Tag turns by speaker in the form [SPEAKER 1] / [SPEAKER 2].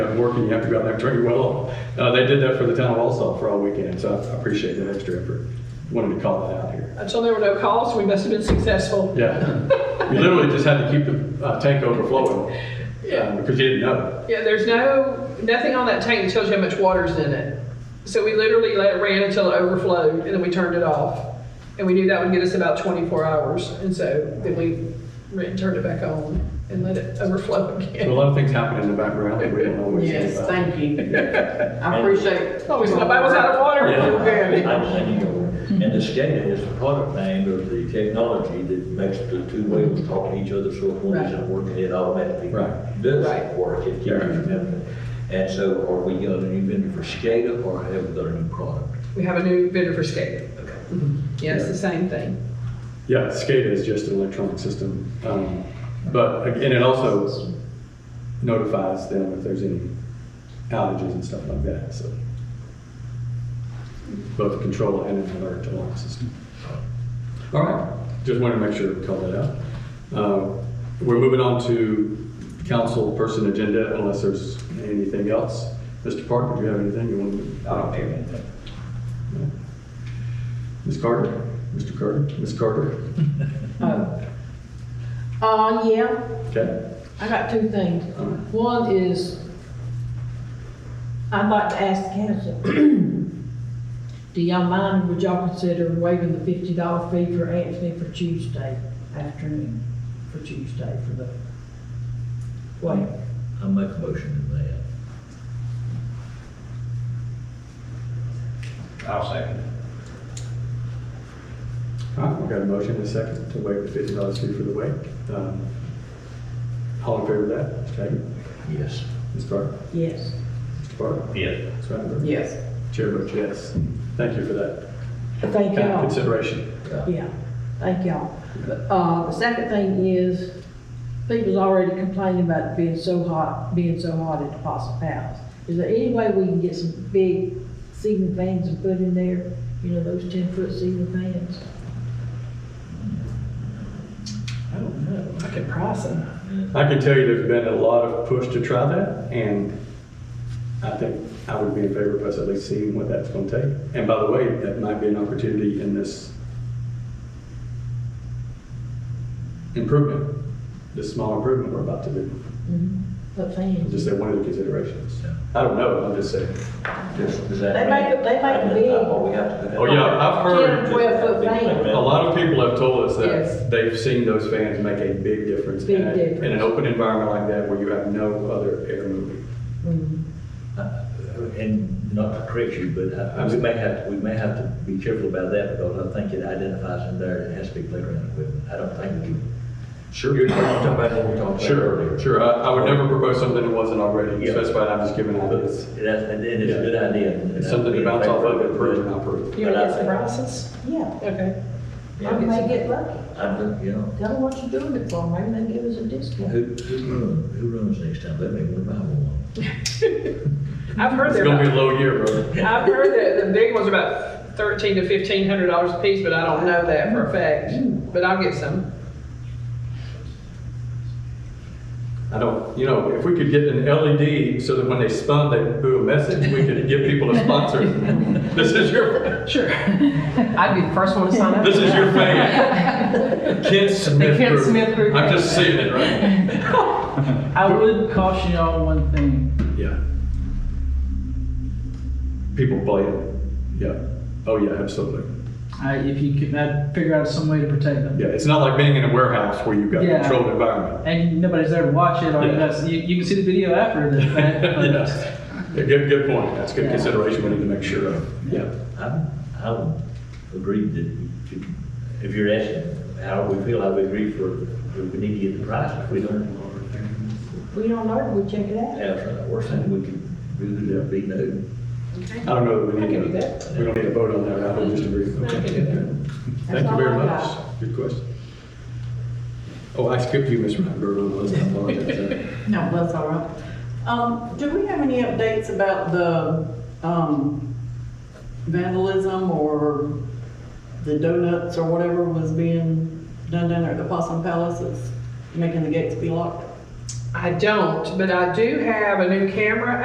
[SPEAKER 1] have work and you have to go out there and turn your well off. Uh, They did that for the town of Walsall for all weekend, so I appreciate that extra effort. Wanted to call that out here.
[SPEAKER 2] And so there were no calls, we must have been successful.
[SPEAKER 1] Yeah, we literally just had to keep the uh, tank overflowing
[SPEAKER 2] Yeah.
[SPEAKER 1] uh, because you didn't know.
[SPEAKER 2] Yeah, there's no, nothing on that tank that tells you how much water's in it. So we literally let it ran until it overflowed and then we turned it off. And we knew that would get us about 24 hours. And so then we ran- turned it back on and let it overflow
[SPEAKER 1] So a
[SPEAKER 2] again.
[SPEAKER 1] lot of things happen in the background that we don't always think
[SPEAKER 3] Yes,
[SPEAKER 1] about.
[SPEAKER 3] thank you. I appreciate.
[SPEAKER 2] Oh, we somebody was out of water.
[SPEAKER 4] Yeah,
[SPEAKER 2] We were good.
[SPEAKER 4] I understand you. go. And the SCADA is the product name of the technology that makes the two wheels talk to each other, so if one
[SPEAKER 2] Right.
[SPEAKER 4] isn't working, it automatically
[SPEAKER 1] Right.
[SPEAKER 4] does
[SPEAKER 2] Right.
[SPEAKER 4] work, it keeps you
[SPEAKER 1] Yeah.
[SPEAKER 4] moving. And so are we got a new vendor for SCADA or have we got a new product?
[SPEAKER 2] We have a new vendor for skating.
[SPEAKER 1] Mm-hmm.
[SPEAKER 2] Yeah, it's the same thing.
[SPEAKER 1] Yeah, SCADA is just an electronic system. Um, But, and it also notifies them if there's any outages and stuff like that, so. Both a control and an alert alarm system. All right, just wanted to make sure we called that out. Um, We're moving on to council person agenda unless there's anything else. Mr. Parker, do you have anything you want to?
[SPEAKER 4] I don't have anything.
[SPEAKER 1] Ms. Carter? Mr. Carter? Ms. Carter?
[SPEAKER 3] Oh, Uh, yeah,
[SPEAKER 1] Okay.
[SPEAKER 3] I got two things. One is, I'd like to ask council, do y'all mind, would y'all consider waiving the fifty dollar fee for Anthony for Tuesday afternoon? For Tuesday, for the, wait,
[SPEAKER 4] I make a motion to that.
[SPEAKER 5] I'll second it.
[SPEAKER 1] All right, we've got a motion and a second to waive the fifty dollars fee for the wait. Um, All in favor of that? Mr. Hagan?
[SPEAKER 4] Yes.
[SPEAKER 1] Ms. Carter?
[SPEAKER 3] yes.
[SPEAKER 1] Mr. Barton?
[SPEAKER 5] Yes.
[SPEAKER 1] Ms. Rattenberg?
[SPEAKER 3] Yes.
[SPEAKER 1] Chair votes yes. Thank you for that
[SPEAKER 3] Thank
[SPEAKER 1] kind of
[SPEAKER 3] y'all.
[SPEAKER 1] consideration.
[SPEAKER 3] Yeah, thank y'all. Uh, the second thing is, people's already complaining about it being so hot, being so hot at the Possum House. Is there any way we can get some big ceiling fans and put in there, you know, those ten foot ceiling fans?
[SPEAKER 2] I don't know. I could price them.
[SPEAKER 1] I can tell you there's been a lot of push to try that, and I think I would be in favor of us at least seeing what that's going to take. And by the way, that might be an opportunity in this improvement, this small improvement we're about to do.
[SPEAKER 3] What fans?
[SPEAKER 1] Just say one of the considerations. I don't know, I'm just saying.
[SPEAKER 4] Just- does that
[SPEAKER 3] They make it- they make
[SPEAKER 4] I-
[SPEAKER 3] big-
[SPEAKER 4] I- Well, we have to. do that.
[SPEAKER 1] Oh, yeah, I've
[SPEAKER 3] Ten or
[SPEAKER 1] heard,
[SPEAKER 3] twelve foot
[SPEAKER 4] Big
[SPEAKER 3] fans.
[SPEAKER 1] a lot of people have told us
[SPEAKER 2] Yes.
[SPEAKER 1] that they've seen those fans make a big difference.
[SPEAKER 3] Big
[SPEAKER 1] in a-
[SPEAKER 3] difference.
[SPEAKER 1] In an open environment like that where you have no other air moving.
[SPEAKER 4] Uh, And not to correct you, but I- I- we may have, we may have to be careful about that because I think it identifies in there, it has to be playground equipment. I don't think we can.
[SPEAKER 1] Sure.
[SPEAKER 4] You're talking about what we talked about
[SPEAKER 1] Sure,
[SPEAKER 4] earlier.
[SPEAKER 1] sure. I, I would never propose something that wasn't already
[SPEAKER 4] Yeah.
[SPEAKER 1] specified, I'm just giving
[SPEAKER 4] But
[SPEAKER 1] ideas.
[SPEAKER 4] that's, and it's a good idea. and
[SPEAKER 1] It's
[SPEAKER 4] I'd
[SPEAKER 1] something
[SPEAKER 4] be
[SPEAKER 1] to
[SPEAKER 4] in
[SPEAKER 1] bounce off
[SPEAKER 4] favor
[SPEAKER 1] of,
[SPEAKER 4] it,
[SPEAKER 1] improve and
[SPEAKER 4] but-
[SPEAKER 1] improve.
[SPEAKER 2] You want to get some prices?
[SPEAKER 3] Mm, Yeah,
[SPEAKER 2] Okay.
[SPEAKER 3] I
[SPEAKER 4] Yeah,
[SPEAKER 3] may get lucky.
[SPEAKER 4] I don't, you know,
[SPEAKER 3] Tell them what you're doing it for, maybe they give us a discount.
[SPEAKER 4] who, who runs, who runs next time? Let me, we'll buy one.
[SPEAKER 2] I've heard
[SPEAKER 1] It's
[SPEAKER 2] they're
[SPEAKER 1] gonna
[SPEAKER 2] about
[SPEAKER 1] be a low year, bro.
[SPEAKER 2] I've heard that the big ones are about thirteen to fifteen hundred dollars a piece, but I don't know that for a fact. But I'll get some.
[SPEAKER 1] I don't, you know, if we could get an LED so that when they spun, they blew a message, we could give people a sponsor. This is your,
[SPEAKER 6] Sure. I'd be the first one to sign up.
[SPEAKER 1] this is your fan. Kent Smith
[SPEAKER 6] Kent
[SPEAKER 1] Group.
[SPEAKER 6] Smith Group.
[SPEAKER 1] I'm just saying it, right?
[SPEAKER 7] I would caution y'all one thing.
[SPEAKER 1] Yeah. People play it. Yeah. Oh yeah, absolutely.
[SPEAKER 7] I, if you could, I'd figure out some way to protect them.
[SPEAKER 1] Yeah, it's not like being in a warehouse where you've got a
[SPEAKER 7] Yeah.
[SPEAKER 1] controlled environment.
[SPEAKER 7] And nobody's there to watch it, or
[SPEAKER 1] Yeah.
[SPEAKER 7] that's, you, you can see the video after the fact. but-
[SPEAKER 1] yeah. Yeah, Good, good point. That's good
[SPEAKER 7] Yeah.
[SPEAKER 1] consideration we need to make sure of. Yeah.
[SPEAKER 4] I, I would agree that, we- if you're asking how we feel, I would agree for, we need to get the price. If we don't,
[SPEAKER 3] We don't know, we check it out.
[SPEAKER 4] have the worst thing we could do would be no.
[SPEAKER 1] I don't know that we
[SPEAKER 2] I
[SPEAKER 1] need
[SPEAKER 2] can
[SPEAKER 1] to,
[SPEAKER 2] do that.
[SPEAKER 1] we don't need to vote on that. I would just agree.
[SPEAKER 2] I can do that.
[SPEAKER 1] Thank you
[SPEAKER 3] all
[SPEAKER 1] very
[SPEAKER 3] I
[SPEAKER 1] much.
[SPEAKER 3] got.
[SPEAKER 1] Good question. Oh, I skipped you, Ms. Rottenberg. I apologize.
[SPEAKER 8] No, that's all right. Um, do we have any updates about the, um, vandalism or the donuts or whatever was being done down there at the Possum Palaces, making the gates be locked?
[SPEAKER 2] I don't, but I do have a new camera